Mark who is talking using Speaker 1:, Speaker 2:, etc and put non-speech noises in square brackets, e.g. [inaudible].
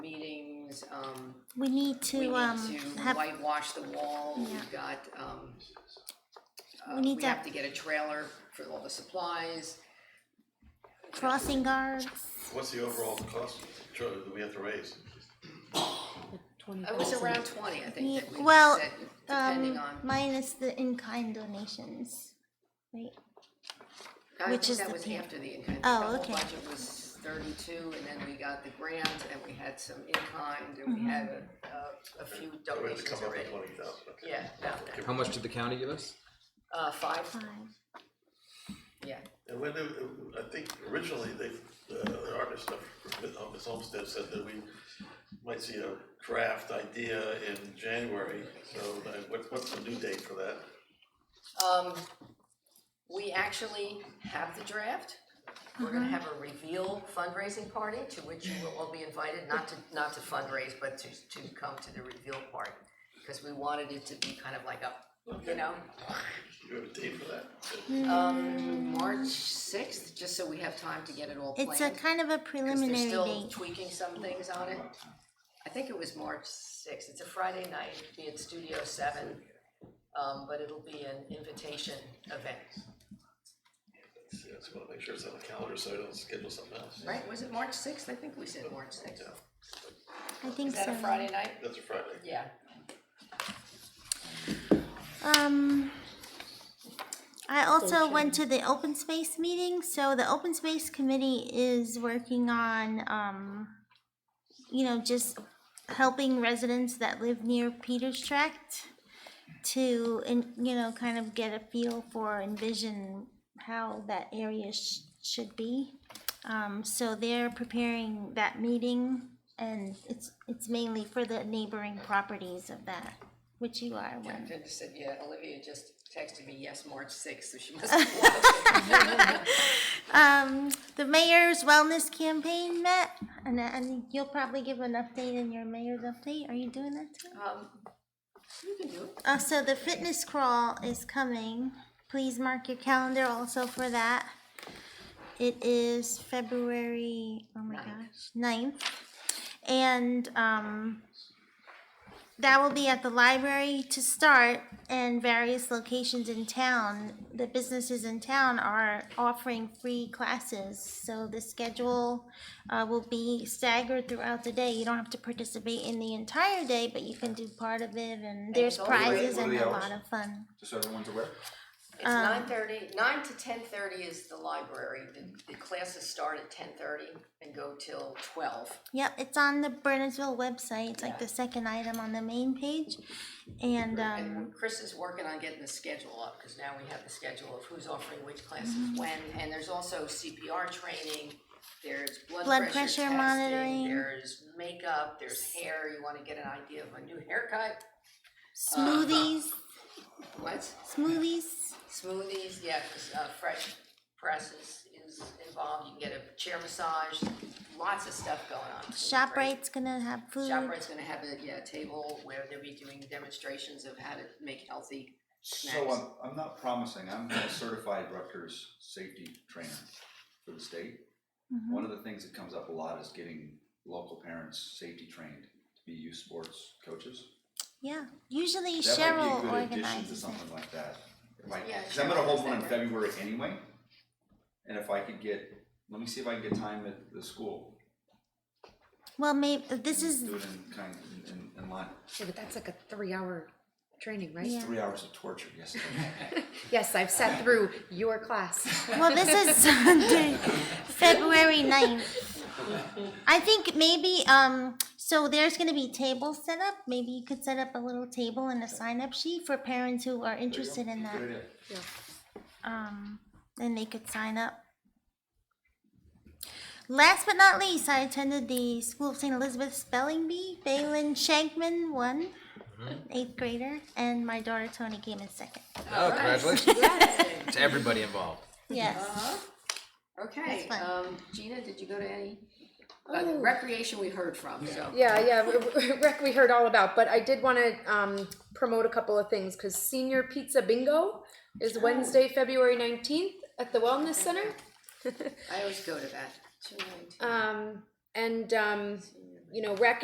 Speaker 1: things, um,
Speaker 2: We need
Speaker 1: we
Speaker 2: to, um,
Speaker 1: need to
Speaker 2: have,
Speaker 1: whitewash the wall,
Speaker 2: Yeah.
Speaker 1: we've got, um, uh,
Speaker 2: need
Speaker 1: we
Speaker 2: to-
Speaker 1: have to get a trailer for all the supplies.
Speaker 2: crossing guards.
Speaker 3: What's the overall cost tr- that we have to raise?
Speaker 1: It was around twenty, I think,
Speaker 2: Yeah,
Speaker 1: that we
Speaker 2: Oh. well,
Speaker 1: said, depending
Speaker 2: Um,
Speaker 1: on,
Speaker 2: minus the in-kind donations. Right,
Speaker 1: I
Speaker 2: which
Speaker 1: think
Speaker 2: is
Speaker 1: that
Speaker 2: the
Speaker 1: was
Speaker 2: pay-
Speaker 1: after the, in- I think the
Speaker 2: Oh,
Speaker 1: whole
Speaker 2: okay.
Speaker 1: budget was thirty-two, and then we got the grant, and we had some in-kind, and we had a,
Speaker 2: Mm-hmm.
Speaker 1: a- a few
Speaker 3: We have to
Speaker 1: donations
Speaker 3: come up
Speaker 1: already.
Speaker 3: with twenty thousand, okay.
Speaker 1: Yeah, about that,
Speaker 4: How much did the county give us?
Speaker 1: uh, five,
Speaker 2: five.
Speaker 1: yeah,
Speaker 3: And when, they- I think originally they, uh, the artist of, of Miss Homestead said that we might see a draft idea in January, so uh, what, what's the new date for that?
Speaker 1: Um, we actually have the draft. We're
Speaker 2: Mm-hmm.
Speaker 1: gonna have a reveal fundraising party to which you will all be invited, not to, not to fundraise, but to, to come to the reveal party. Because we wanted it to be kind of like a, you know,
Speaker 3: Do you have a date for that?
Speaker 1: um, March sixth, just so we have time to get it all planned.
Speaker 2: Mm. It's a kind of a
Speaker 1: 'cause
Speaker 2: preliminary
Speaker 1: They're still
Speaker 2: date.
Speaker 1: tweaking some things on it. I think it was March sixth. It's a Friday night, it'll be at Studio Seven. Um, but it'll be an invitation event.
Speaker 3: Yeah, just wanna make sure it's on the calendar, so I don't schedule something else.
Speaker 1: Right, was it March sixth? I think we said March sixth.
Speaker 2: I think
Speaker 1: Is that
Speaker 2: so.
Speaker 1: a Friday night?
Speaker 3: That's a Friday.
Speaker 1: Yeah.
Speaker 2: Um, I also went to the open space meeting, so the open space committee is working on, um, you know, just helping residents that live near Peters Tract to, and, you know, kind of get a feel for, envision how that area sh- should be. Um, so they're preparing that meeting, and it's, it's mainly for the neighboring properties of that, which you are one.
Speaker 1: Jen just said, yeah, Olivia just texted me, yes, March sixth, so she [laughs] must be watching.
Speaker 2: Um, the mayor's wellness campaign met, and, and you'll probably give an update in your mayor's update. Are you doing that too?
Speaker 1: Um, You can do it.
Speaker 2: Uh, so the fitness crawl is coming. Please mark your calendar also for that. It is February, oh my gosh, 9th. And um, that will be at the library to start and various locations in town. The businesses in town are offering free classes. So the schedule uh, will be staggered throughout the day. You don't have to participate in the entire day, but you can do part of it. And there's
Speaker 1: it's all free.
Speaker 2: prizes
Speaker 5: What are
Speaker 2: and
Speaker 5: the
Speaker 2: a
Speaker 5: hours?
Speaker 2: lot of fun.
Speaker 5: Just so everyone's aware.
Speaker 1: It's nine thirty, nine to ten thirty is the library. The, the classes start at ten thirty and go till twelve.
Speaker 2: Yep, it's on the Bernardsville website. It's like the second item on the main page. And um,
Speaker 1: And Chris is working on getting the schedule up, because now we have the schedule of who's offering which classes
Speaker 2: Mm-hmm.
Speaker 1: when, and there's also CPR training, there's blood
Speaker 2: Blood
Speaker 1: pressure
Speaker 2: pressure
Speaker 1: testing,
Speaker 2: monitoring.
Speaker 1: there's makeup, there's hair, you wanna get an idea of a new haircut,
Speaker 2: smoothies,
Speaker 1: what?
Speaker 2: smoothies.
Speaker 1: Smoothies, yeah, 'cause, uh, fresh presses is involved, you can get a chair massage, lots of stuff going on. It's gonna be great.
Speaker 2: ShopRite's gonna have food.
Speaker 1: ShopRite's gonna have a, yeah, table where they'll be doing demonstrations of how to make healthy
Speaker 5: So
Speaker 1: Nice.
Speaker 5: I'm, I'm not promising, I'm a certified Rutgers safety trainer for the state. One of the things that comes up a lot is getting local parents safety trained to be youth sports coaches.
Speaker 2: Yeah, usually
Speaker 5: That might
Speaker 2: Cheryl
Speaker 5: be a good addition to
Speaker 2: organizes it.
Speaker 5: something like that. It might-
Speaker 1: Yeah,
Speaker 5: Cause I'm gonna
Speaker 1: Cheryl
Speaker 5: hold
Speaker 1: does
Speaker 5: one in
Speaker 1: that.
Speaker 5: February anyway. And if I could get, let me see if I can get time at the school,
Speaker 2: Well, maybe this is
Speaker 5: [laughs] do it in kind, in, in line,
Speaker 6: Yeah, but that's like a three hour training, right?
Speaker 2: Yeah.
Speaker 5: three hours of torture, yes.
Speaker 6: Yes, I've sat through your class.
Speaker 2: well, this
Speaker 5: [laughs]
Speaker 2: is Sunday, February 9th. I think maybe um so there's going to be tables set up. Maybe you could set up a little table and a sign up sheet for parents who are interested in that.
Speaker 5: Good idea.
Speaker 2: um, and they could sign up. Last but not least, I attended the School of St. Elizabeth Spelling Bee. Balin Shankman won, eighth grader, and my daughter Tony came in second.
Speaker 4: Oh, congratulations
Speaker 1: Yes.
Speaker 4: to everybody involved.
Speaker 2: Yes.
Speaker 1: Okay,
Speaker 2: fine.
Speaker 1: um, Gina, did you go to any? Uh, the recreation we heard from, so.
Speaker 6: [laughs] Yeah, yeah, rec we heard all about, but I did want to um, promote a couple of things because Senior Pizza Bingo is Wednesday, February 19th at the Wellness Center.
Speaker 1: I always go to that. Two nineteen.
Speaker 6: Um, and, um, you know, rec